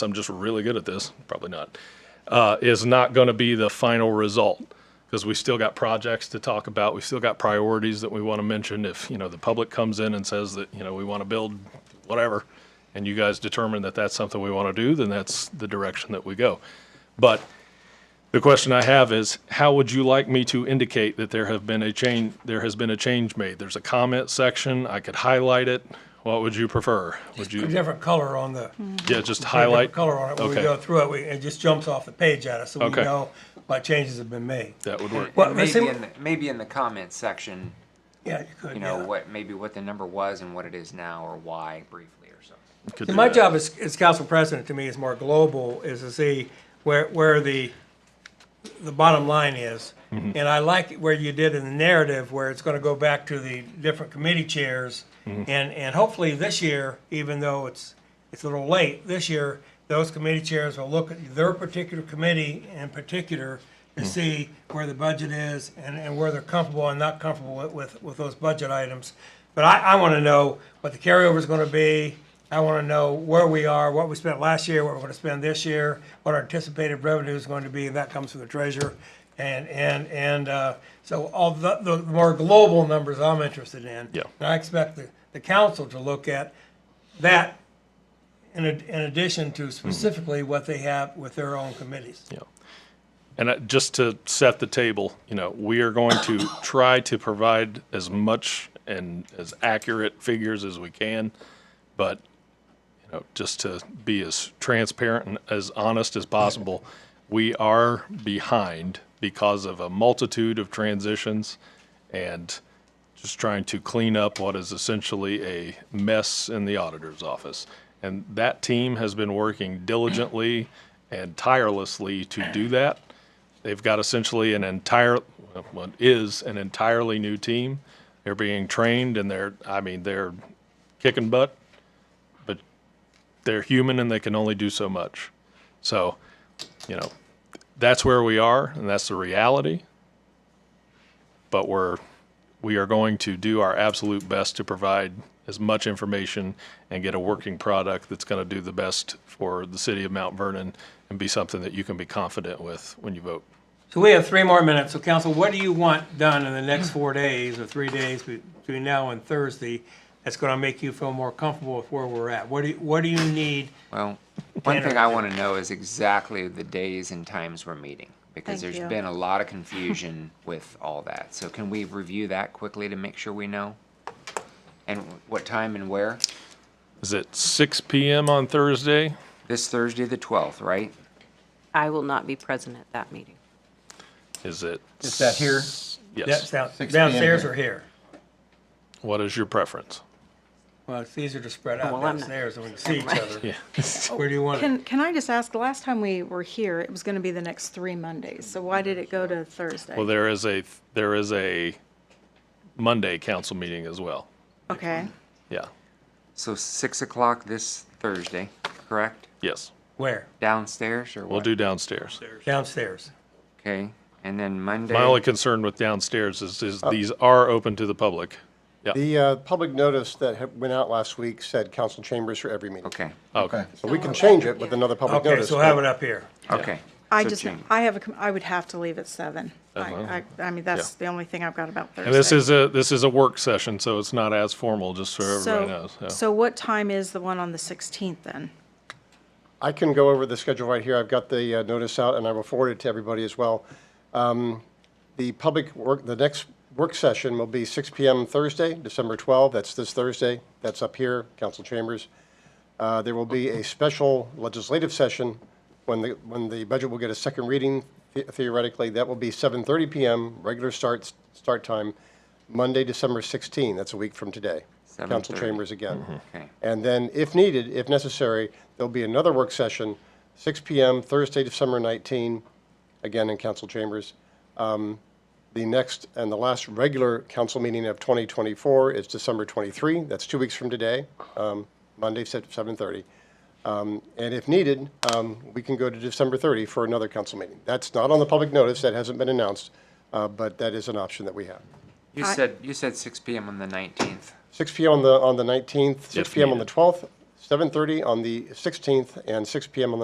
I'm just really good at this, probably not, uh, is not going to be the final result because we still got projects to talk about. We still got priorities that we want to mention. If, you know, the public comes in and says that, you know, we want to build whatever, and you guys determine that that's something we want to do, then that's the direction that we go. But the question I have is, how would you like me to indicate that there have been a change, there has been a change made? There's a comment section. I could highlight it. What would you prefer? Would A you, different color on the. yeah, just different highlight? Color on it, when we Okay. go through it, we, it just jumps off the page at us, so we Okay. know what changes have been made. That would work. Well, And let's maybe see- in the, maybe in the comments section, Yeah, you could, you know yeah. what maybe what the number was and what it is now, or why briefly or something. Could See, do my that. job as, as council president, to me, is more global, is to see where, where the, the bottom line is. Mm-hmm. And I like where you did in the narrative, where it's gonna go back to the different committee chairs. And, Mm-hmm. and hopefully this year, even though it's, it's a little late, this year, those committee chairs will look at their particular committee in particular Mm. to see where the budget is and, and where they're comfortable and not comfortable with- with, with those budget items. But I, I wanna know what the carryover's gonna be, I want to know where we are, what we spent last year, what we're going to spend this year, what our anticipated revenue is going to be, and that comes from the treasurer. And, and, and, uh, so all the, the more global numbers I'm interested in. Yeah. And I expect the, the council to look at that in, ad- in addition to specifically what they have with their own committees. Yeah. And I- just to set the table, you know, we are going to try to provide as much and as accurate figures as we can, but, you know, just to be as transparent and as honest as possible, we are behind because of a multitude of transitions and just trying to clean up what is essentially a mess in the auditor's office. And that team has been working diligently and tirelessly to do that. They've got essentially an entire, well, what is an entirely new team. They're being trained and they're, I mean, they're kicking butt, but they're human and they can only do so much. So, you know, that's where we are and that's the reality. But we're, we are going to do our absolute best to provide as much information and get a working product that's going to do the best for the city of Mount Vernon and be something that you can be confident with when you vote. So we have three more minutes. So council, what do you want done in the next four days or three days between now and Thursday that's going to make you feel more comfortable with where we're at? What do, you- what do you need? Well, one thing I want to know is exactly the days and times we're meeting because Thank there's you. been a lot of confusion with all that. So can we review that quickly to make sure we know? And what time and where? Is it six PM on Thursday? This Thursday, the twelfth, right? I will not be present at that meeting. Is it? Is that here? That's Yes. down- 6 p.m. downstairs here. or here? What is your preference? Well, it's easier to spread out Well, I'm not- downstairs and we can see each Never other. Yeah. Where do you want it? Can, can I just ask, the last time we were here, it was gonna be the next three Mondays, so why did it go to Thursday? Well, there is a, there is a Monday council meeting as well. Okay, Yeah. So six o'clock this Thursday, correct? Yes. Where? Downstairs or what? We'll do downstairs. Downstairs. Okay, and then Monday. My only concern with downstairs is, is these are open to the public. Yeah. The uh, public notice that had- went out last week said council chambers for every meeting. Okay, Okay. So we can change it with another public Okay, notice. so have it up here. okay. I So just, change. I have a, com- I would have to leave at seven. I, I, I mean, that's Uh-huh. Yeah. the only thing I've got about Thursday. And this is a, this is a work session, so it's not as formal, just so everybody So, knows. yeah. so what time is the one on the sixteenth then? I can go over the schedule right here. I've got the uh, notice out, and I will forward it to everybody as well. Um, The public work, the next work session will be 6 PM Thursday, December 12. That's this Thursday. That's up here, council chambers. Uh, There will be a special legislative session when the, when the budget will get a second reading the- theoretically. That will be 7:30 PM, regular start, start time, Monday, December 16. That's a week from today. Council 7:30. chambers again. Okay. And then, if needed, if necessary, there'll be another work session, 6 PM, Thursday, December 19, again in council chambers. Um, The next and the last regular council meeting of 2024 is December 23. That's two weeks from today, um, Monday, se- 7:30. Um, And if needed, um, we can go to December 30 for another council meeting. That's not on the public notice, that hasn't been announced, uh, but that is an option that we have. You I- said, you said six PM on the nineteenth. 6 PM on the, on the 19th, 6 If PM on the needed. 12th, 7:30 on the 16th, and 6 PM on the